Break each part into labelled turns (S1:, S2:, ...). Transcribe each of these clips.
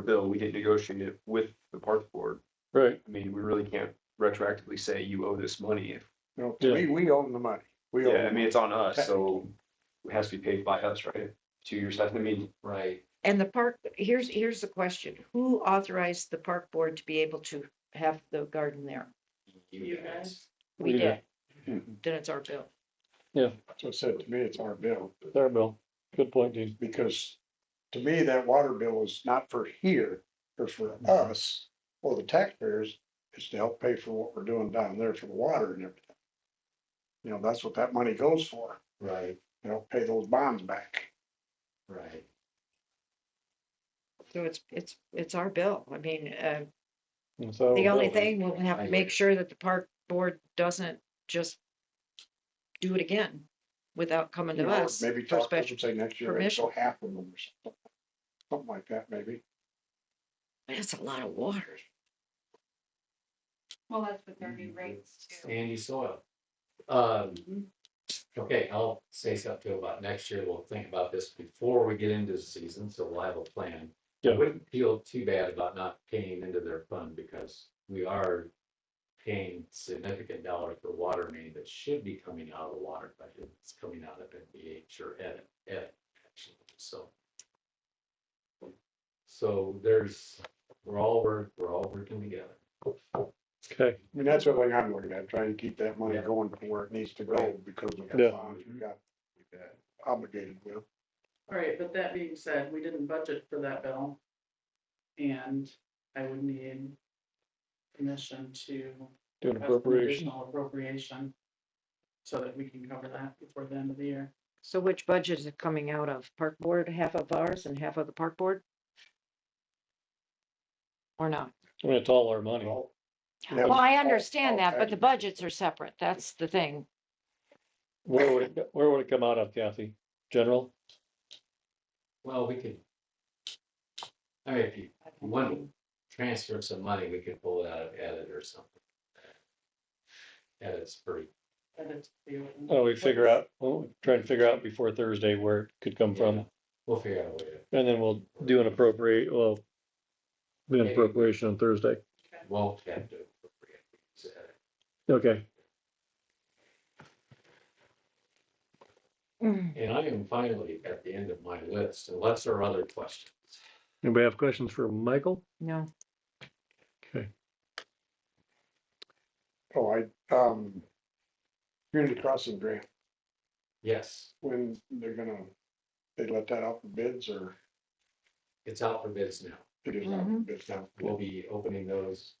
S1: bill, we didn't negotiate it with the parks board.
S2: Right,
S1: I mean, we really can't retroactively say you owe this money. if-
S3: No, we, we own the money. We own.
S1: Yeah, I
S3: the
S1: mean, it's on us,
S3: Okay.
S1: so it has to be paid by us, right? To your staff, I mean,
S4: Right.
S5: And the park, here's, here's the question. Who authorized the park board to be able to have the garden there?
S4: You
S5: guys.
S2: We
S5: We did.
S3: did.
S5: Then it's our bill.
S3: money. So it said to me, it's our bill,
S2: there, Bill. Good point, Dean.
S3: because to me, that water bill is not for here, or for
S5: Mm-hmm.
S3: us, or the taxpayers. It's to help pay for what we're doing down there for the water and everything. You know, that's what that money goes for,
S4: Right,
S3: you know, pay those bonds back.
S4: right.
S5: So it's, it's, it's our bill. I mean, uh,
S2: And
S3: Oh,
S2: so.
S5: the only
S4: well,
S5: thing, we'll have to
S4: I hear you.
S5: make sure that the park board doesn't just do it again without coming
S3: You
S5: to
S3: know, or
S5: us.
S3: Maybe
S5: for
S3: talk to them,
S5: special
S3: say next year, it's
S5: permission.
S3: so half of them or something. Something like that, maybe.
S5: That's a lot of water.
S6: Well, that's with their
S4: Mm.
S6: new rates too.
S4: Sandy soil. Um, okay, I'll say something about next year. We'll think about this before we get into the season, so we'll have a plan. I
S2: Yeah.
S4: wouldn't feel too bad about not paying into their fund because we are paying significant dollars for water main that should be coming out of the water budget. It's coming out of NBH or ed, ed, actually, so. So there's, we're all, work- we're all working together.
S2: Okay,
S3: I mean, that's what I'm looking at, trying to keep that money
S4: Yeah.
S3: going to where it needs to go
S4: Right.
S3: because we
S2: Yeah.
S3: got bonds, we got obligated with.
S7: All right, but that being said, we didn't budget for that bill. And I would need permission to.
S2: do an
S7: request an
S2: appropriation.
S7: additional Appropriation. So that we can cover that before the end of the year.
S5: So which budget is it coming out of? Park board, half of ours and half of the park board? Or not?
S2: I mean, it's all our money.
S3: Yeah.
S5: Well, I
S3: All- all
S5: understand that, but the
S3: taxes.
S5: budgets are separate. That's the thing.
S2: Where would it, go- where would it come out of, Kathy? General?
S4: Well, we could. I mean, if you want to transfer some money, we could pull it out of edit or something. Edit's pretty,
S7: And it's.
S2: Oh, we figure out, well, try and figure out before Thursday where it could come from.
S4: we'll figure out a way to,
S2: And then we'll do an appropriate, well, do an
S4: Maybe.
S2: appropriation on Thursday.
S4: won't have to. appropriate these edit.
S2: Okay,
S5: Mm,
S4: And I am finally at the end of my list, unless there are other questions.
S2: anybody have questions for Michael?
S5: No.
S2: Okay,
S3: Oh, I, um, community crossing grant,
S4: Yes,
S3: when they're gonna, they let that out for bids or
S4: it's out for bids now.
S3: it is out for
S5: Mhm.
S3: bids now?
S4: We'll be opening those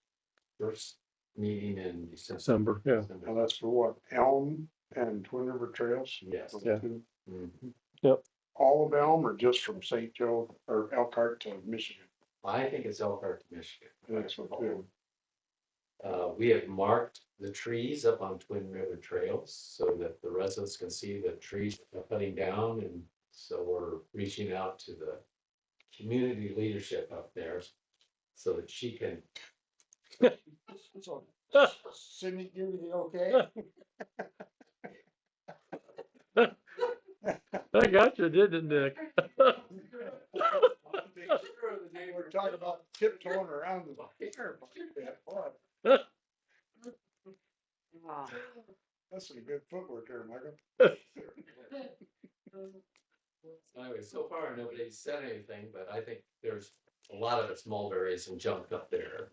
S4: first meeting in December.
S2: December, yeah.
S3: Now that's for what, Elm and Twin River Trails?
S4: Yes.
S2: Yeah.
S4: Mhm.
S3: All of Elm or just from St. Joe or Elkhart to Michigan?
S4: I think it's Elkhart, Michigan.
S3: That's what they're.
S4: Uh, we have marked the trees up on Twin River Trails so that the residents can see the trees that are cutting down and so we're reaching out to the community leadership up there so that she can,
S3: So, Cindy, give me the okay?
S2: I got you, didn't Nick?
S3: We're talking about tiptoeing around the bear. That's some good footwork there, Michael.
S4: anyway, so far nobody's said anything, but I think there's a lot of it's mulberries and junk up there.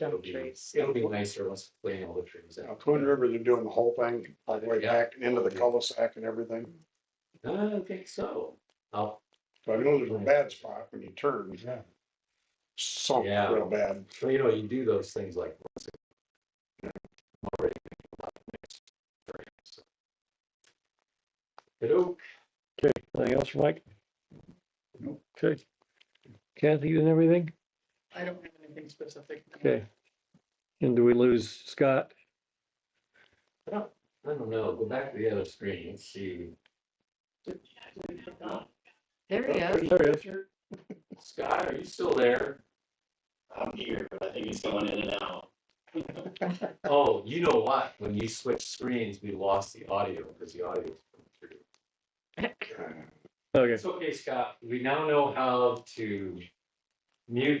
S4: It'll be-
S5: trees.
S4: It'll be nicer once we clean all the trees
S3: Now,
S4: out.
S3: Twin River, they're doing the whole thing, all the way
S4: Yeah.
S3: back and into the cul-de-sac and everything.
S4: I don't think so. I'll
S3: So I know there's a bad spot when you turn.
S4: Yeah.
S3: Something
S4: Yeah.
S3: real bad.
S4: Well, you know, you do those things like. once a- you know, I'm already thinking about the next program, so. Hello,
S2: Anything else, Mike? Okay. Kathy, you and everything?
S7: I don't have anything specific.
S2: Okay. And do we lose Scott?
S4: I don't know, go back to the other screen and see.
S5: There he is.
S2: There he is.
S4: Scott, are you still there?
S8: I'm here, but I think it's going in and out.
S4: Oh, you know what? When you switched screens, we lost the audio because the audio was coming through.
S2: Okay.
S4: It's okay, Scott. We now know how to mute